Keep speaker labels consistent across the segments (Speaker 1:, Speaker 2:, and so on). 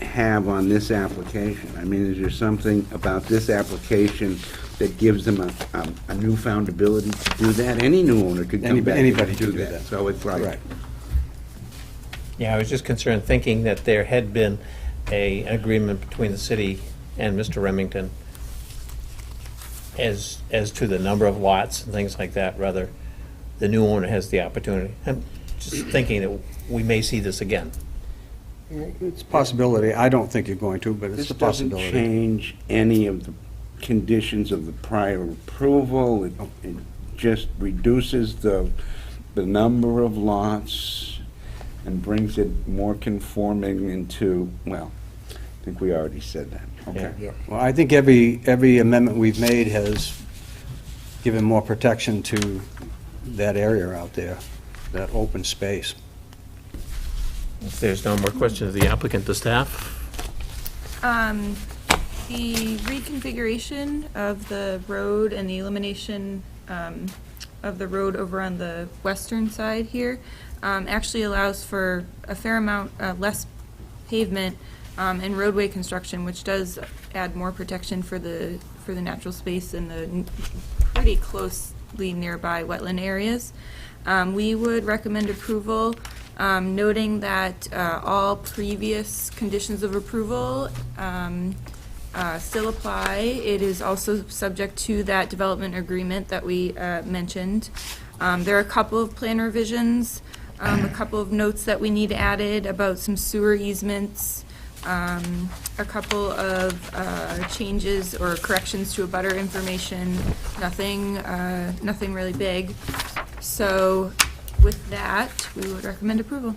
Speaker 1: have on this application? I mean, is there something about this application that gives them a, um, a newfound ability to do that? Any new owner could come
Speaker 2: Anybody-
Speaker 1: back
Speaker 2: anybody
Speaker 1: and
Speaker 2: could
Speaker 1: do
Speaker 2: do
Speaker 1: that.
Speaker 2: that.
Speaker 1: So it's like,
Speaker 2: Correct.
Speaker 3: Yeah, I was just concerned, thinking that there had been a, an agreement between the city and Mr. Remington as, as to the number of lots and things like that, rather, the new owner has the opportunity. I'm just thinking that we may see this again.
Speaker 2: It's a possibility. I don't think you're going to, but
Speaker 1: this
Speaker 2: it's a
Speaker 1: doesn't
Speaker 2: possibility.
Speaker 1: change any of the conditions of the prior approval. It it just reduces the, the number of lots and brings it more conforming into, well, I think we already said that. Okay.
Speaker 3: Yeah.
Speaker 2: Well, I think every, every amendment we've made has given more protection to that area out there, that open space.
Speaker 3: If there's no more questions of the applicant, the staff?
Speaker 4: Um, the reconfiguration of the road and the elimination, um, of the road over on the western side here, um, actually allows for a fair amount, uh, less pavement, um, and roadway construction, which does add more protection for the, for the natural space and the n- pretty closely nearby wetland areas. Um, we would recommend approval, um, noting that, uh, all previous conditions of approval, um, uh, still apply. It is also subject to that development agreement that we, uh, mentioned. Um, there are a couple of plan revisions, um, a couple of notes that we need added about some sewer easements, um, a couple of, uh, changes or corrections to a butter information, nothing, uh, nothing really big. So with that, we would recommend approval.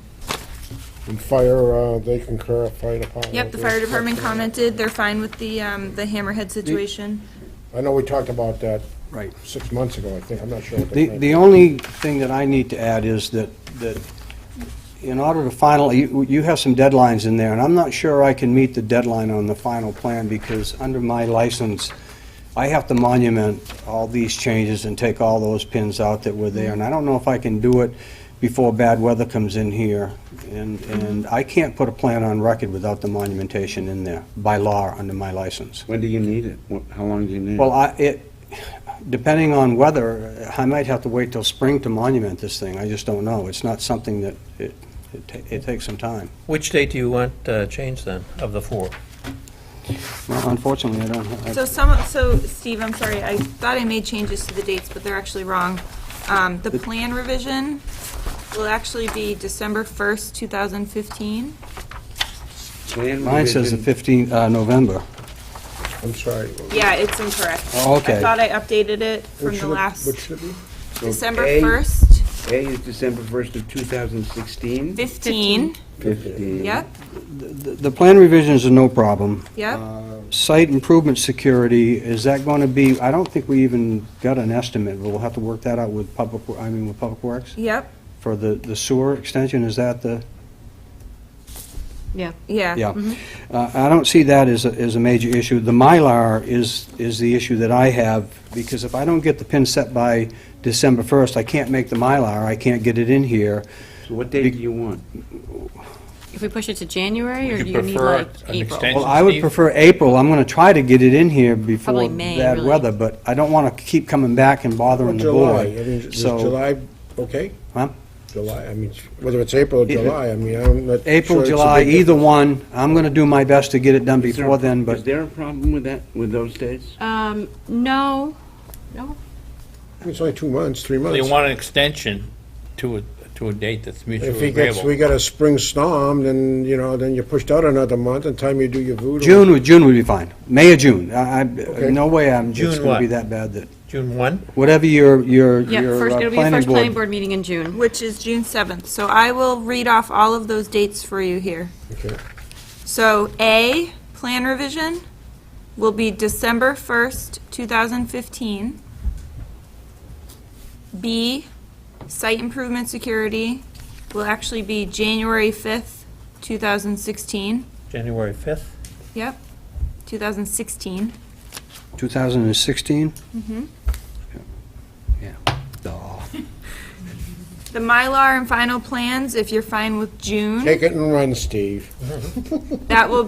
Speaker 5: And fire, uh, they concur, fire department.
Speaker 4: Yep, the fire department commented, they're fine with the, um, the hammerhead situation.
Speaker 5: I know we talked about that
Speaker 2: Right.
Speaker 5: six months ago, I think, I'm not sure. what
Speaker 2: The,
Speaker 5: name
Speaker 2: the
Speaker 5: is.
Speaker 2: only thing that I need to add is that, that in order to finally, you, you have some deadlines in there, and I'm not sure I can meet the deadline on the final plan, because under my license, I have to monument all these changes and take all those pins out that were there, and I don't know if I can do it before bad weather comes in here, and, and I can't put a plan on record without the monumentation in there, by law, under my license.
Speaker 1: When do you need it? Wh- How long do you need
Speaker 2: Well,
Speaker 1: it?
Speaker 2: I, it, depending on weather, I might have to wait till spring to monument this thing. I just don't know. It's not something that, it, it ta- it takes some time.
Speaker 3: Which date do you want uh, changed then, of the four?
Speaker 2: Well, Unfortunately, I don't, have-
Speaker 4: So some, so Steve, I'm sorry, I thought I made changes to the dates, but they're actually wrong. Um, the plan revision will actually be December first, two thousand fifteen.
Speaker 1: Plan
Speaker 2: mine says the
Speaker 1: revision-
Speaker 2: 15th, uh, November.
Speaker 5: I'm sorry.
Speaker 4: Yeah, it's incorrect.
Speaker 2: Oh, okay.
Speaker 4: I thought I updated it from
Speaker 5: What
Speaker 4: the
Speaker 5: should it- What
Speaker 4: last,
Speaker 5: should it be?
Speaker 1: So
Speaker 4: December
Speaker 1: A-
Speaker 4: first,
Speaker 1: A is December 1st of 2016?
Speaker 4: fifteen,
Speaker 1: 15.
Speaker 4: yep,
Speaker 2: The, the plan revisions are no problem.
Speaker 4: yep.
Speaker 2: Site improvement security, is that going to be, I don't think we even got an estimate, but we'll have to work that out with public, Wo- I mean, with Public Works?
Speaker 4: Yep,
Speaker 2: For the, the sewer extension, is that the?
Speaker 6: Yeah.
Speaker 4: yeah.
Speaker 6: Uh-huh.
Speaker 2: Yeah.
Speaker 6: Mm-hmm.
Speaker 2: Uh, I don't see that as, a- as a major issue. The Mylar is, is the issue that I have, because if I don't get the pin set by December 1st, I can't make the Mylar, I can't get it in here.
Speaker 1: So what date do you want?
Speaker 6: If we push it to January, or
Speaker 3: Would
Speaker 6: do
Speaker 3: you
Speaker 6: you need
Speaker 3: prefer
Speaker 6: like
Speaker 3: an
Speaker 6: April?
Speaker 3: extension?
Speaker 2: Well, I would
Speaker 3: Steve?
Speaker 2: prefer April, I'm going to try to get it in here before
Speaker 6: Probably May,
Speaker 2: bad
Speaker 6: really.
Speaker 2: weather, but I don't want to keep coming back and bothering the
Speaker 5: July, I
Speaker 2: board.
Speaker 5: mean, is
Speaker 2: So-
Speaker 5: July, okay?
Speaker 2: Huh?
Speaker 5: July, I mean, whether it's April or
Speaker 2: Either-
Speaker 5: July, I mean, I'm not. sure
Speaker 2: April,
Speaker 5: it's a
Speaker 2: July,
Speaker 5: big
Speaker 2: either one, I'm going to do my best to get it done
Speaker 1: Is there-
Speaker 2: before then,
Speaker 1: Is
Speaker 2: but
Speaker 1: there a problem with that, with those dates?
Speaker 6: Um, no, no,
Speaker 5: difference. It's only two months, three
Speaker 7: They
Speaker 5: months.
Speaker 7: want an extension to a, to a date that's
Speaker 5: If
Speaker 7: mutually
Speaker 5: he gets, we
Speaker 7: agreeable.
Speaker 5: got a spring storm, then, you know, then you're pushed out another month, and time you do your voodoo.
Speaker 2: June, would June would be fine. May or June, I, I, no way I'm, it's
Speaker 3: June
Speaker 2: going to be
Speaker 3: what?
Speaker 2: that bad that,
Speaker 3: June 1?
Speaker 2: whatever your, your,
Speaker 6: yeah,
Speaker 2: your
Speaker 6: first,
Speaker 2: uh,
Speaker 6: it'll be the
Speaker 2: planning
Speaker 6: first planning
Speaker 2: board
Speaker 6: board meeting in June.
Speaker 4: Which is June seventh, so I will read off all of those dates for you here.
Speaker 5: Okay.
Speaker 4: So A, plan revision, will be December 1st, 2015. B, site improvement security, will actually be January 5th, 2016.
Speaker 3: January 5th?
Speaker 4: Yep, 2016.
Speaker 2: 2016? Mm-hmm. Yeah. Duh.
Speaker 4: The Mylar and final plans, if you're fine with June,
Speaker 5: Take it and run, Steve.
Speaker 4: that will